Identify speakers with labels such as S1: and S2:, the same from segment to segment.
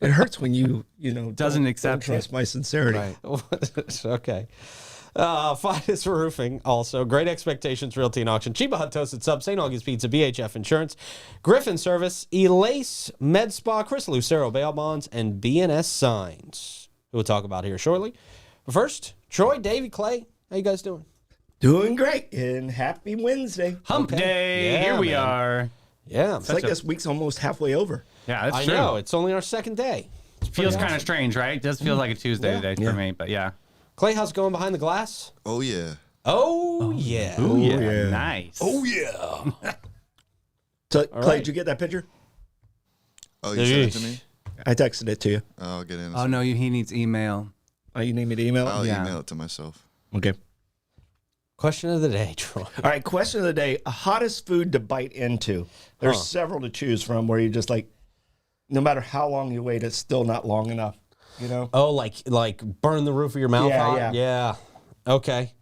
S1: It hurts when you you know
S2: Doesn't
S1: don't-
S2: accept
S1: don't trust my sincerity.
S3: okay. Uh, Fidus Roofing, also. Great Expectations Realty and Auction. Chiba Hut Toasted Sub, St. August Pizza, BHF Insurance, Griffin Service, Elace Med Spa, Chris Lucero Bail Bonds, and BNS Signs, who we'll talk about here shortly. But first, Troy, Davy, Clay, how you guys doing?
S1: Doing great and happy Wednesday.
S2: Hump
S3: Okay.
S2: day.
S3: Yeah,
S2: Here we
S3: man.
S2: are.
S3: Yeah,
S1: It's like this week's almost halfway over.
S2: Yeah, that's
S3: I
S2: true.
S3: know. It's only our second day.
S2: feels kind of strange, right? It does feel like a Tuesday
S3: Mm-hmm. Yeah.
S2: today for me, but yeah.
S3: Clay, how's it going behind the glass?
S4: Oh yeah.
S3: Oh, yeah.
S2: Ooh, yeah.
S1: yeah.
S2: Nice.
S4: yeah.
S1: So, Clay,
S3: right.
S1: did you get that picture?
S4: Oh, you sent it to me.
S1: I texted it to you.
S4: Oh, I'll get in.
S2: Oh, no, you, he needs email.
S1: Oh, you need me to email? it?
S4: I'll
S2: yeah.
S4: email it to myself.
S1: Okay.
S3: Question of the day, Troy.
S1: All right. Question of the day: hottest food to bite into. There's several to choose from where you just like, no matter how long you wait, it's still not long enough. You know.
S3: Oh, like like burn the roof of your mouth
S1: Yeah,
S3: out?
S1: yeah.
S3: Yeah. Okay.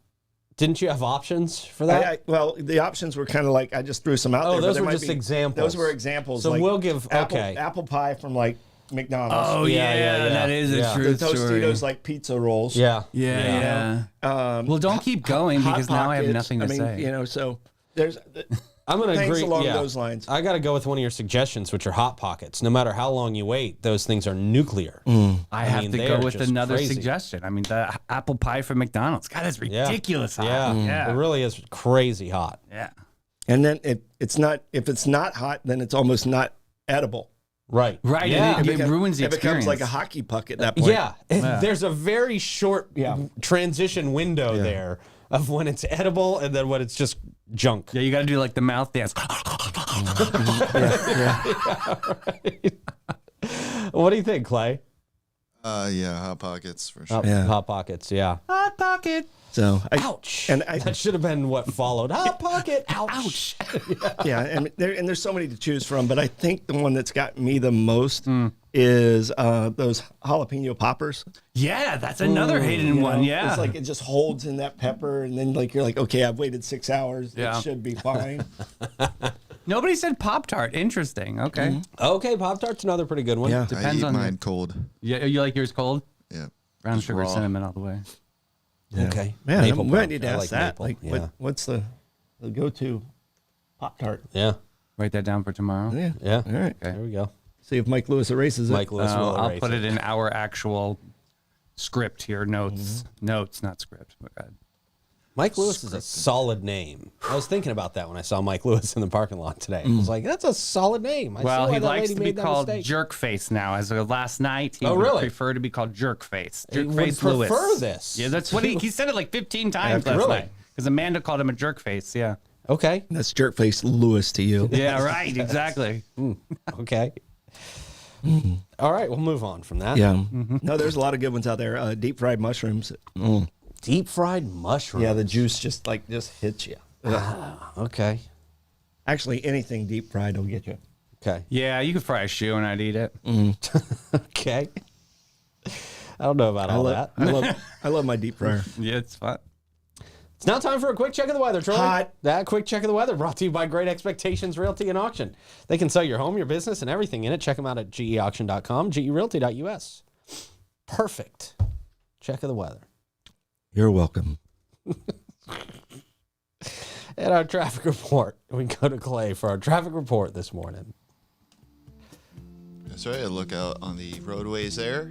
S3: Didn't you have options for
S1: I,
S3: that?
S1: I, well, the options were kind of like I just threw some out there.
S3: Oh,
S1: but
S3: those
S1: there
S3: were
S1: might
S3: just
S1: be-
S3: examples.
S1: Those were examples.
S3: So
S1: like
S3: we'll give-
S1: apple,
S3: okay.
S1: apple pie from like McDonald's.
S2: Oh,
S3: Yeah,
S2: yeah.
S3: yeah, yeah.
S2: That is a
S3: Yeah.
S2: true
S1: the
S2: story.
S1: Tostitos like pizza rolls.
S3: yeah.
S2: yeah, yeah.
S1: Um,
S2: Well, don't keep going
S1: Hot
S2: because now I have
S1: Pockets,
S2: nothing to
S1: mean,
S2: say.
S1: You know, so there's
S3: I'm gonna
S1: things
S3: agree
S1: along
S3: yeah.
S1: those lines.
S3: I gotta go with one of your suggestions, which are hot pockets. No matter how long you wait, those things are nuclear.
S2: I have
S3: mean,
S2: to
S3: they
S2: go
S3: are
S2: with
S3: just
S2: another
S3: crazy.
S2: suggestion. I mean, the h- apple pie from McDonald's. God, that's
S3: Yeah.
S2: ridiculous. hot.
S3: Yeah.
S2: yeah.
S3: It
S1: Mm.
S3: really is crazy hot.
S2: yeah.
S1: and then it, it's not if it's not hot, then it's almost not edible.
S3: Right.
S2: Right,
S3: Yeah.
S2: and It ruins the
S1: it becomes like a
S2: experience.
S1: hockey puck at that point.
S3: yeah. There's a very short
S1: Yeah.
S3: transition window there of when it's edible and then when it's just junk.
S2: Yeah, you got to do like the mouth dance.
S3: What do you think, Clay?
S4: Uh, yeah, hot pockets
S2: Oh,
S4: for sure.
S3: Hot, hot pockets, yeah.
S2: Hot pocket.
S1: So I,
S3: Ouch.
S1: And I-
S3: that should have been what followed. Hot pocket. Ouch.
S1: yeah, and there and there's so many to choose from, but I think the one that's got me the most is uh, those jalapeno poppers.
S2: Yeah, that's another hidden one.
S1: know?
S2: Yeah.
S1: It's like it just holds in that pepper, and then like you're like, okay, I've waited six hours.
S2: Yeah.
S1: It should be fine.
S2: Nobody said Pop Tart. Interesting.
S3: Mm-hmm.
S2: Okay.
S3: Okay, Pop Tart's another pretty good one.
S1: Yeah.
S4: I
S2: Depends
S4: eat
S2: on
S4: mine
S2: the,
S4: cold.
S2: Yeah, you like yours cold?
S4: Yeah.
S2: Brown
S4: Just
S2: sugar,
S4: raw.
S2: cinnamon all the way.
S3: Okay.
S1: Yeah,
S3: Maple
S1: I'm
S3: brown.
S1: ready to
S3: I
S1: ask
S3: like
S1: that.
S3: maple,
S1: Like,
S3: yeah.
S1: what, what's the, the go-to Pop Tart?
S3: yeah.
S2: Write that down for tomorrow.
S1: Yeah.
S3: Yeah.
S1: All right.
S3: There we go.
S1: See if Mike Lewis erases it. Uh,
S3: Mike Lewis
S2: Oh,
S3: will
S2: I'll
S3: erase
S2: put it in our actual script here. Notes.
S3: Mm-hmm.
S2: Notes, not script. My bad.
S3: Mike Lewis is a solid name. I was thinking about that when I saw Mike Lewis in the parking lot today. I was like, that's a solid name. I
S2: Mm.
S3: see
S2: Well,
S3: why
S2: he
S3: that
S2: likes
S3: lady
S2: to be
S3: made that
S2: called
S3: mistake.
S2: Jerkface now. As of last night, he
S3: Oh,
S2: would
S3: really?
S2: prefer to be called Jerkface.
S3: He would
S2: Jerkface Lewis.
S3: prefer this.
S2: Yeah, that's what he, he said it like 15 times
S3: Yeah,
S2: last
S3: really?
S2: night. Because Amanda called him a jerkface. Yeah.
S3: Okay.
S1: That's jerkface Lewis to you.
S2: Yeah, right. Exactly.
S3: Okay. All right, we'll move on from that.
S1: Yeah. Mm-hmm. No, there's a lot of good ones out there. Uh, deep fried mushrooms.
S3: Deep fried mushroom.
S1: Yeah, the juice just like just hits you.
S3: Okay.
S1: Actually, anything deep fried will get you.
S3: Okay.
S2: Yeah, you could fry a shoe and I'd eat it.
S3: Mm. Okay. I don't know about
S1: I
S3: all
S1: love,
S3: that.
S1: I love, I love my deep fryer.
S2: Yeah, it's fun.
S3: It's now time for a quick check of the weather, Troy.
S1: Hot.
S3: That quick check of the weather brought to you by Great Expectations Realty and Auction. They can sell your home, your business, and everything in it. Check them out at geauction.com, gerealty.us. Perfect. Check of the weather.
S1: You're welcome.
S3: And our traffic report. We go to Clay for our traffic report this morning.
S4: That's right. I look out on the roadways there.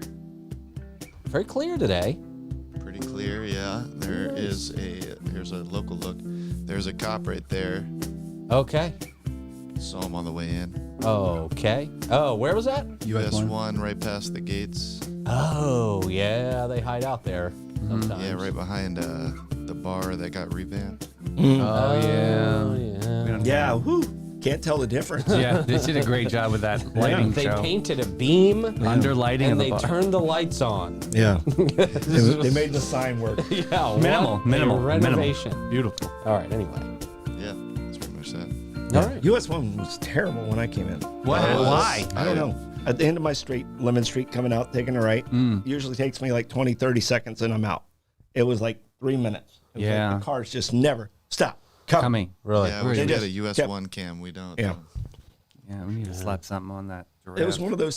S3: Very clear today.
S4: Pretty clear. Yeah. There is a. Here's a local look. There's a cop right there.
S3: Okay.
S4: Saw him on the way in.
S3: Okay. Oh, where was that?
S4: US one right past the gates.
S3: Oh, yeah. They hide out there
S2: Mm,
S3: sometimes.
S4: Yeah, right behind uh, the bar that got revamped.
S2: Oh,
S3: Oh,
S2: yeah.
S3: yeah.
S1: Yeah. Whoo. Can't tell the difference.
S2: Yeah, they did a great job with that lighting
S3: Oh. They
S2: show.
S3: painted a beam.
S2: Under lighting of
S3: and
S2: the
S3: they
S2: bar.
S3: turned the lights on.
S1: Yeah. they, they made the sign work.
S3: Yeah,
S2: minimal,
S3: what a
S2: minimal,
S3: renovation.
S2: minimal. Beautiful.
S3: All right. Anyway.
S4: Yeah, that's pretty much that.
S3: All right.
S1: US one was terrible when I came in.
S2: What?
S4: Oh,
S2: Why?
S1: I don't know. At the end of my street, Lemon Street, coming out, taking a right,
S2: Mm.
S1: usually takes me like 20, 30 seconds and I'm out. It was like three minutes. It was like
S2: Yeah.
S1: the cars just never stop. Come.
S2: Coming.
S3: Really?
S4: Yeah, we
S1: They
S4: should get
S1: just
S4: a US
S1: kept-
S4: one cam. We don't.
S1: Yeah.
S2: Yeah, we need to slap something on that.
S1: It was
S2: giraffe.
S1: one of those